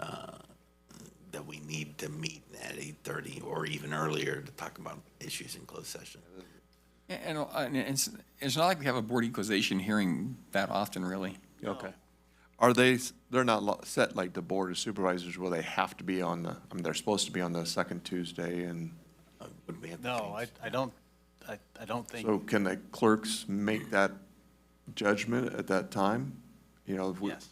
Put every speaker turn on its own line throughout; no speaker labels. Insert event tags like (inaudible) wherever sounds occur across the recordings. uh, need to meet at 8:30 or even earlier to talk about issues in closed session.
And, uh, and it's, it's not like we have a board equalization hearing that often, really.
Okay. Are they, s- they're not lo- set like the Board of Supervisors where they have to be on the, I mean, they're supposed to be on the second Tuesday and,
Uh, Would we have to
No, I,
change?
I don't, I, I don't think,
so can the clerks make that judgment at that time? You know, if we,
yes,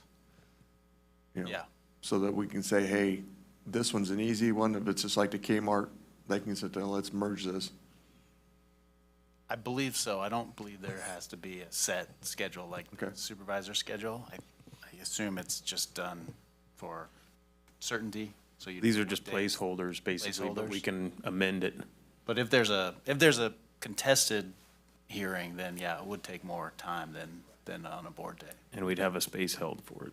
you know,
yeah.
so that we can say, hey, this one's an easy one. If it's just like the Kmart, they can sit down, let's merge this.
I believe so. I don't believe there has to be a set schedule like
Okay.
supervisor schedule. I, I assume it's just done for certainty, so you.
These are just
days.
placeholders, basically, but we
Placeholders.
can amend it.
But if there's a, if there's a contested hearing, then yeah, it would take more time than, than on a board day.
And we'd have a space held for it.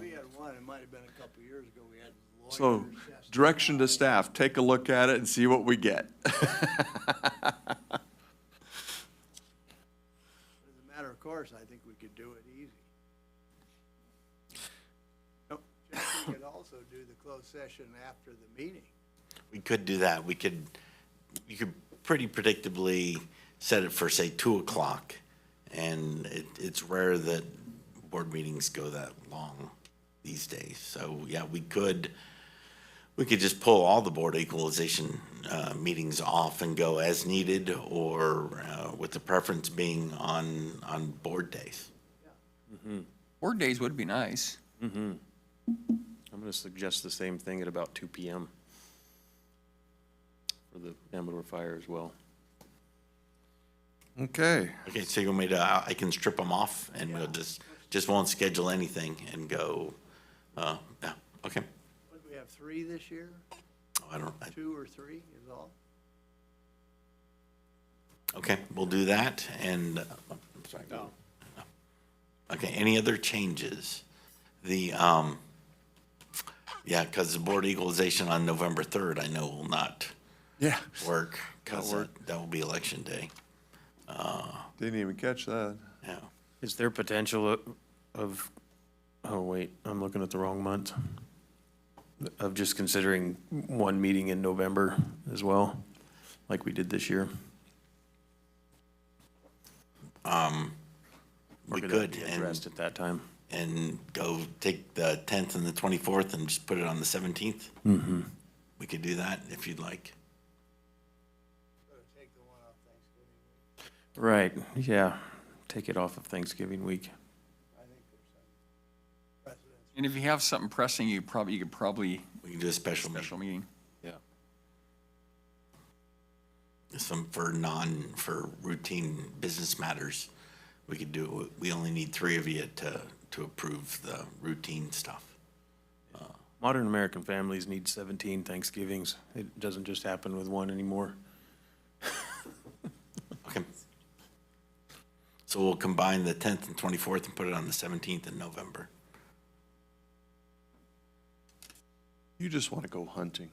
We had one, it might have been a couple of years ago, we had lawyers.
So
testify.
direction to staff, take a look at it and see what we get. (laughs)
As a matter of course, I think we could do it easy. Nope. We could also do the closed session after the meeting.
We could do that. We could, you could pretty predictably set it for, say, 2 o'clock. And it, it's rare that board meetings go that long these days. So, yeah, we could, we could just pull all the board equalization uh, meetings off and go as needed or uh, with the preference being on, on board days.
Board days would be nice.
I'm gonna suggest the same thing at about two PM for the Amador Fire as well.
Okay.
Okay, so you want me to, I I can strip them off and we'll just, just won't schedule anything and go, uh, yeah, okay.
What, do we have three this year?
Oh, I don't, I-
Two or three is all?
Okay, we'll do that, and, uh, I'm sorry. Okay, any other changes? The, um, yeah, because the board equalization on November 3rd, I know will not
Yeah.
work, because that will be election day.
Didn't even catch that.
Yeah,
Is there potential o- of, oh wait, I'm looking at the wrong month, of just considering one meeting in November as well, like we did this year?
we
Or could that
could,
be
and,
Addressed at that time.
and go take the 10th and the 24th and just put it on the 17th? We could do that if you'd like.
Take the one off Thanksgiving.
Right, yeah, take it off of Thanksgiving week.
I think there's some precedence.
And if you have something pressing, you probably, you could probably
We can do a special meeting.
special meeting.
some for non, for routine business matters. We could do, we only need three of you to, to approve the routine stuff.
Modern American families need 17 Thanksgivings. It doesn't just happen with one anymore.
Okay. So we'll combine the tenth and twenty-fourth and put it on the seventeenth in November.
You just want to go hunting.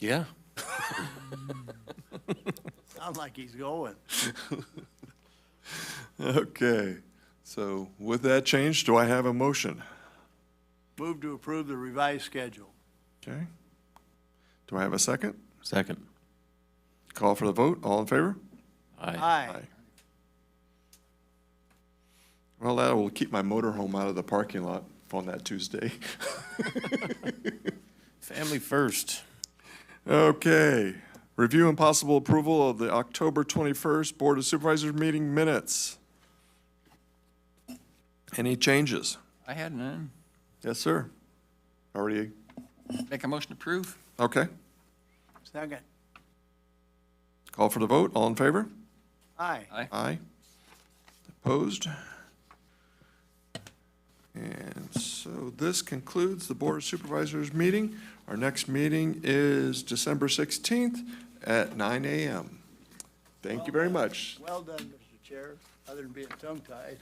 Yeah.
Sounds like he's going.
Okay, so with that change, do I have a motion?
Move to approve the revised schedule.
Okay. Do I have a second?
Second.
Call for the vote, all in favor?
Aye.
Aye.
Well, that will keep my motorhome out of the parking lot on that Tuesday. (laughs)
Family first.
Okay, review and possible approval of the October 21st Board of Supervisors meeting minutes. Any changes?
I had none.
Yes, sir. Already,
Make a motion to approve?
okay.
Second.
Call for the vote, all in favor?
Aye.
Aye. Opposed? And so this concludes the Board of Supervisors meeting. Our next meeting is December 16th at 9 AM. Thank you very much.
Well done, Mr. Chair, other than being tongue-tied.